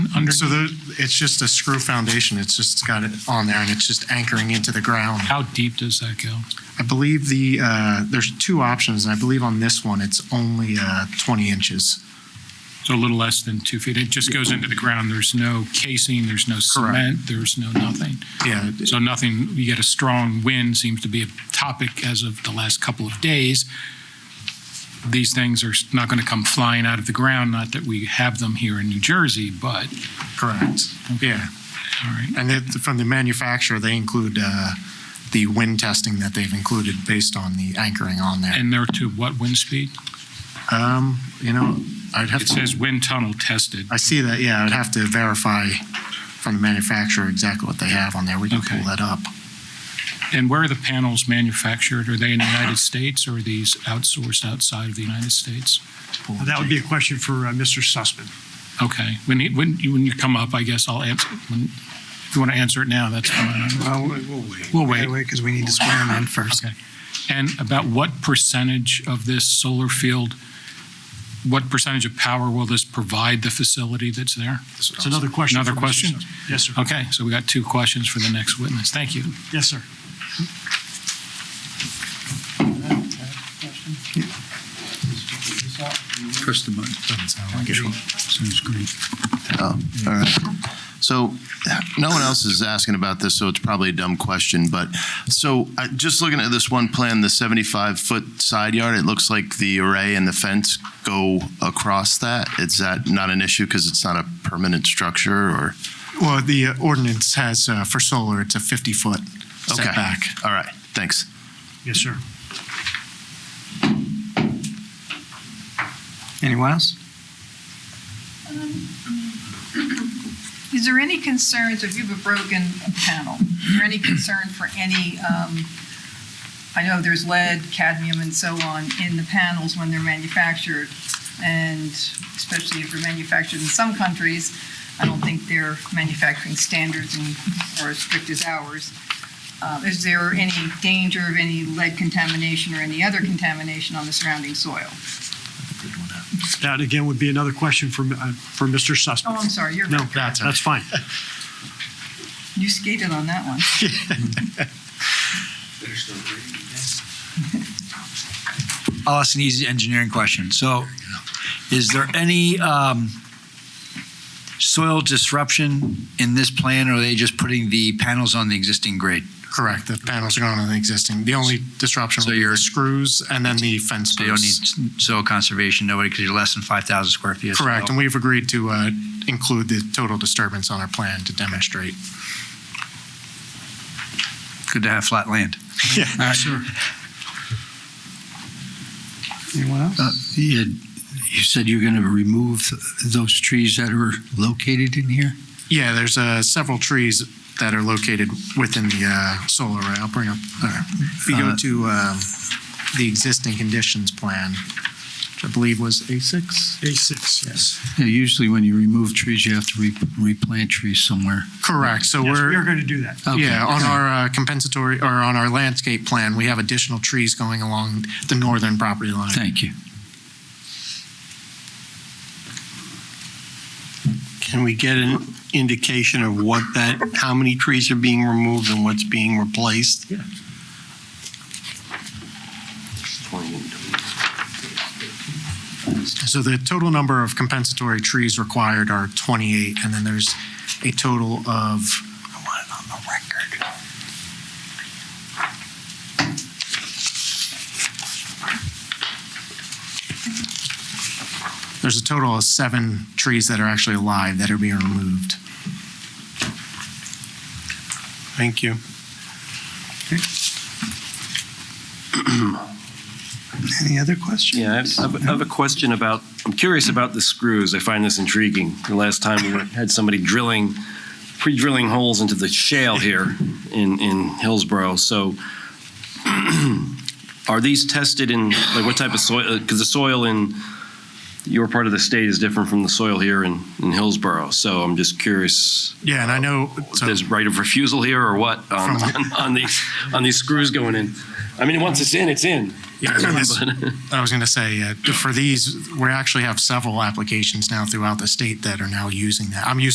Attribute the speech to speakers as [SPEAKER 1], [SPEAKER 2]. [SPEAKER 1] under?
[SPEAKER 2] So the, it's just a screw foundation. It's just got it on there and it's just anchoring into the ground.
[SPEAKER 1] How deep does that go?
[SPEAKER 2] I believe the, uh, there's two options. and I believe on this one, it's only, uh, 20 inches.
[SPEAKER 1] So a little less than two feet. It just goes into the ground. There's no casing, there's no cement, there's no nothing.
[SPEAKER 2] Yeah.
[SPEAKER 1] So nothing, you get a strong wind, seems to be a topic as of the last couple of days. These things are not going to come flying out of the ground, not that we have them here in New Jersey, but,
[SPEAKER 2] Correct. Yeah.
[SPEAKER 1] all right.
[SPEAKER 2] And it, from the manufacturer, they include, uh, the wind testing that they've included based on the anchoring on there.
[SPEAKER 1] And they're to what wind speed?
[SPEAKER 2] Um, you know, I'd have
[SPEAKER 1] It
[SPEAKER 2] to,
[SPEAKER 1] says wind tunnel tested.
[SPEAKER 2] I see that, yeah, I'd have to verify from the manufacturer exactly what they have on there. We can
[SPEAKER 1] Okay.
[SPEAKER 2] pull that up.
[SPEAKER 1] And where are the panels manufactured? Are they in the United States or are these outsourced outside of the United States?
[SPEAKER 2] Pull
[SPEAKER 3] That would be a question for uh, Mr. Sussman.
[SPEAKER 1] Okay, when, he- when, you- when you come up, I guess I'll answer, when, if you want to answer it now, that's fine.
[SPEAKER 4] Well, we'll wait.
[SPEAKER 1] We'll wait.
[SPEAKER 4] Because we need to swear him in first.
[SPEAKER 1] Okay. And about what percentage of this solar field, what percentage of power will this provide the facility that's there?
[SPEAKER 3] It's another question.
[SPEAKER 1] Another
[SPEAKER 3] for Mr.
[SPEAKER 1] question? Uh,
[SPEAKER 3] Sussman. Yes, sir.
[SPEAKER 1] Okay, so we got two questions for the next witness. Thank you.
[SPEAKER 3] Yes, sir.
[SPEAKER 5] Press the button. Sounds great.
[SPEAKER 6] All right. So no one else is asking about this, so it's probably a dumb question, but so I- just looking at this one plan, the 75-foot side yard, it looks like the array and the fence go across that. Is that not an issue because it's not a permanent structure or?
[SPEAKER 2] Well, the uh, ordinance has, uh, for solar, it's a 50-foot
[SPEAKER 6] Okay.
[SPEAKER 2] setback.
[SPEAKER 6] All right, thanks.
[SPEAKER 3] Yes, sir.
[SPEAKER 4] Anyone else?
[SPEAKER 7] Is there any concerns if you've a broken panel? Is there any concern for any, um, I know there's lead, cadmium, and so on in the panels when they're manufactured, and especially if they're manufactured in some countries, I don't think their manufacturing standards and- are as strict as ours. Uh, Is there any danger of any lead contamination or any other contamination on the surrounding soil?
[SPEAKER 3] That again would be another question for, uh, for Mr.
[SPEAKER 7] Oh,
[SPEAKER 3] Sussman.
[SPEAKER 7] I'm sorry, you're,
[SPEAKER 3] No,
[SPEAKER 7] right.
[SPEAKER 3] that's fine.
[SPEAKER 7] you skated on that one.
[SPEAKER 4] I'll ask an easy engineering question. So is there any um, soil disruption in this plan, or are they just putting the panels on the existing grade?
[SPEAKER 2] Correct, the panels are going on the existing. The only disruption
[SPEAKER 4] So
[SPEAKER 2] will be the
[SPEAKER 4] you're-
[SPEAKER 2] screws and then the fence
[SPEAKER 4] So you don't
[SPEAKER 2] posts.
[SPEAKER 4] need soil conservation, nobody, because you're less than 5,000 square feet. of soil.
[SPEAKER 2] Correct, and we've agreed to uh, include the total disturbance on our plan to demonstrate.
[SPEAKER 4] Good to have flat land. Yeah, sure. Anyone else?
[SPEAKER 5] You Uh, you said you're going to remove those trees that are located in here?
[SPEAKER 2] Yeah, there's uh, several trees that are located within the uh, solar array. I'll bring up, uh, if you go
[SPEAKER 5] Uh,
[SPEAKER 2] to um, the existing conditions plan, which I believe was A6?
[SPEAKER 3] A6, yes.
[SPEAKER 5] Yeah, Usually when you remove trees, you have to re- replant trees somewhere.
[SPEAKER 2] Correct, so
[SPEAKER 3] Yes, we are
[SPEAKER 2] we're,
[SPEAKER 3] going to do that.
[SPEAKER 5] Okay.
[SPEAKER 2] yeah, on our uh, compensatory, or on our landscape plan, we have additional trees going along the northern property line.
[SPEAKER 5] Thank you.
[SPEAKER 8] Can we get an indication of what that, how many trees are being removed and what's being replaced? Yeah.
[SPEAKER 2] So the total number of compensatory trees required are 28, and then there's a total of,
[SPEAKER 8] I want it on the record.
[SPEAKER 2] there's a total of seven trees that are actually alive that are being removed.
[SPEAKER 8] Thank you.
[SPEAKER 4] Any other questions?
[SPEAKER 9] Yeah, I have- I have, I have a question about, I'm curious about the screws. I find this intriguing. The last time we were- had somebody drilling, pre-drilling holes into the shale here in, in Hillsborough. So are these tested in, like what type of soil? Because the soil in your part of the state is different from the soil here in, in Hillsborough. So I'm just curious,
[SPEAKER 2] Yeah, and I know,
[SPEAKER 9] if
[SPEAKER 2] so-
[SPEAKER 9] there's right of refusal here or what on, on, on these, on these screws going in? I mean, once it's in, it's in.
[SPEAKER 2] yeah, this- I was going to say, uh, for these, we actually have several applications now throughout the state that are now using that. I'm using